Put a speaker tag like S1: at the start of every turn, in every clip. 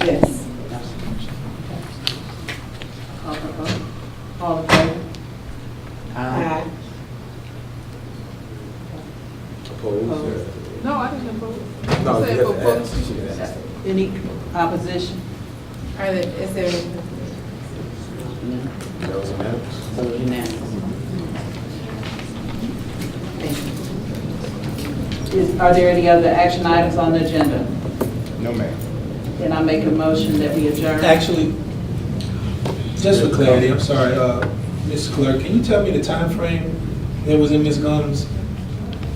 S1: Yes. Call for vote. All in favor?
S2: Aye.
S3: Opposed?
S1: No, I didn't vote.
S3: No,
S4: Say
S3: you have to
S4: opposed.
S3: ask. She asked.
S1: Any opposition?
S4: Are there, is there,
S2: No.
S3: That was unanimous.
S2: So unanimous.
S1: Is, are there any other action items on the agenda?
S3: No, ma'am.
S1: Then I make a motion that we adjourn.
S5: Actually, just for clarity, I'm sorry, uh, Ms. Clerk, can you tell me the time frame that was in Ms. Gunn's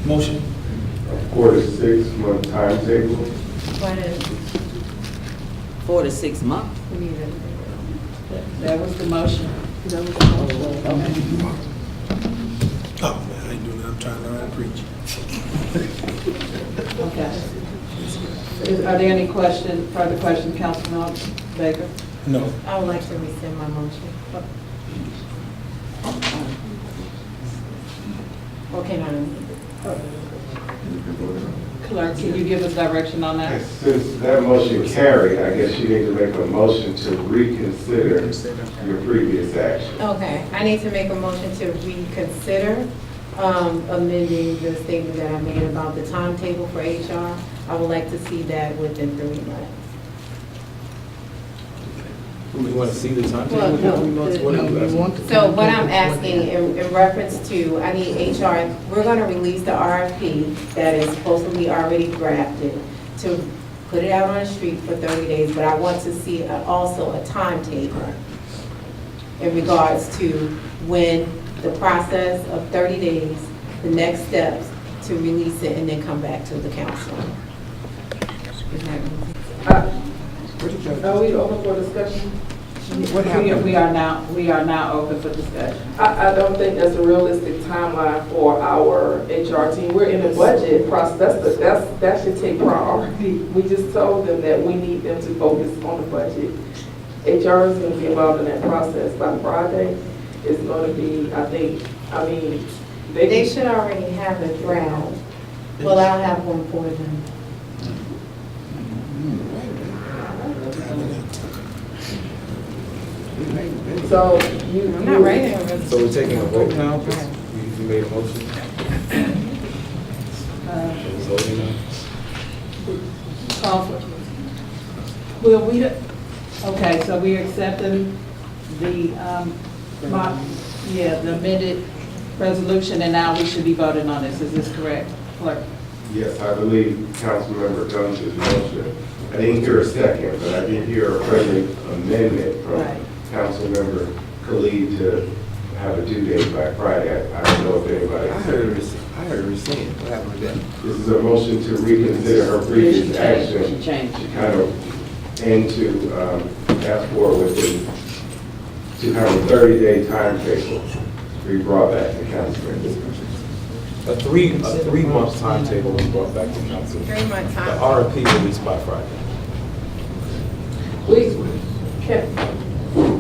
S5: motion?
S6: Of course, six month timetable.
S4: what is,
S2: Four to six months.
S4: we need a-
S1: That was the motion.
S5: Oh, man, I ain't doing that, I'm trying to learn how to preach.
S1: Okay. Is, are there any question, further questions, Councilman Baker?
S5: No,
S4: I would like to rescind my motion. Oh. Okay, now, oh,
S1: Clerk, can you give us direction on that?
S6: And Since that motion carried, I guess you need to make a motion to reconsider your previous action.
S4: okay, I need to make a motion to reconsider um, amending the statement that I made about the timetable for HR. I would like to see that within three months.
S3: We want to see the
S4: Well, no,
S3: timetable?
S4: the-
S3: What are you asking?
S4: So what I'm asking in in reference to, I need HR, we're going to release the RFP that is supposedly already drafted to put it out on the street for 30 days, but I want to see a- also a timetable in regards to when the process of 30 days, the next steps to release it and then come back to the council. Is that-
S1: Are we open for discussion? We we are now, we are now open for discussion.
S7: I, I don't think that's a realistic timeline for our HR team. We're in the budget process, that's, the- that's, that should take priority. We just told them that we need them to focus on the budget. HR is gonna be involved in that process by Friday. It's gonna be, I think, I mean,
S4: They
S7: they,
S4: should already have a draft. Well, I'll have one for them.
S7: so you.
S4: I'm not writing a resolution.
S3: So we're taking a vote now, because you you made a motion?
S1: Uh,
S3: It was voting now?
S1: call for- Well, we, don't- okay, so we are accepting the, um, mo- yeah, the amended resolution, and now we should be voting on this, is this correct, clerk?
S6: Yes, I believe Councilmember Guns's motion. I didn't hear a second, but I did hear a friendly amendment from
S1: Right.
S6: Councilmember Khalid to have a due date by Friday. I don't know if
S3: I
S6: anybody.
S3: heard her, res- I heard her rescind. What happened with that?
S6: This is a motion to reconsider her
S2: She
S6: previous
S2: changed,
S6: action.
S2: she changed.
S6: to kind of, and to um, ask for within, to have a 30-day timetable to be brought back to council in discussion.
S3: A three, a three-month timetable was brought back to council. The
S4: Three month time.
S3: RFP released by Friday.
S7: We, can,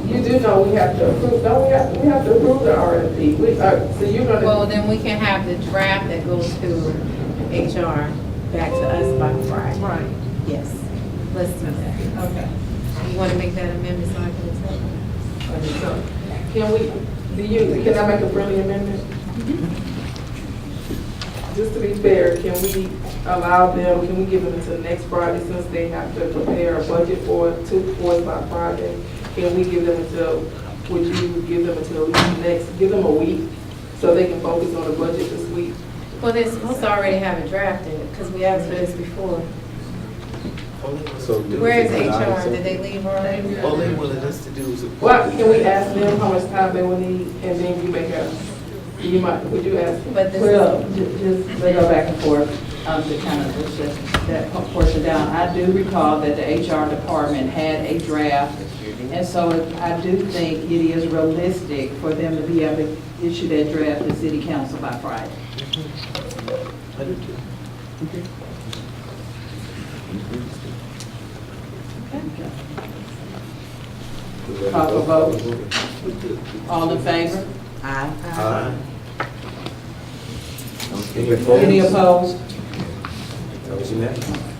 S7: you do know we have to approve, no, we have, we have to approve the RFP. We, uh, so you're gonna.
S4: Well, then we can have the draft that goes to HR back to us by Friday.
S1: Right.
S4: Yes, let's do that.
S1: Okay.
S4: You want to make that amendment so I can tell them?
S7: Can we, do you, can I make a friendly amendment?
S4: Mm-hmm.
S7: Just to be fair, can we allow them, can we give them until next Friday since they have to prepare a budget for, it to, for it by Friday? Can we give them until, would you give them until next, give them a week so they can focus on the budget this week?
S4: Well, they're supposed to already have it drafted because we asked for this before.
S3: So did-
S4: Where is
S3: did not
S4: HR?
S3: accept-
S4: Did they leave already?
S8: All they wanted us to do was.
S7: Well, can we ask them how much time they will need and then you make a, you might, would you ask?
S4: But this is,
S1: Well, ju- just, they go back and forth, um, to kind of push that, that portion down. I do recall that the HR department had a draft, and so I do think it is realistic for them to be able to issue that draft to city council by Friday. Call for vote. All in favor?
S3: Aye. Any
S1: Any
S3: opposed?
S1: opposed?
S3: That was unanimous.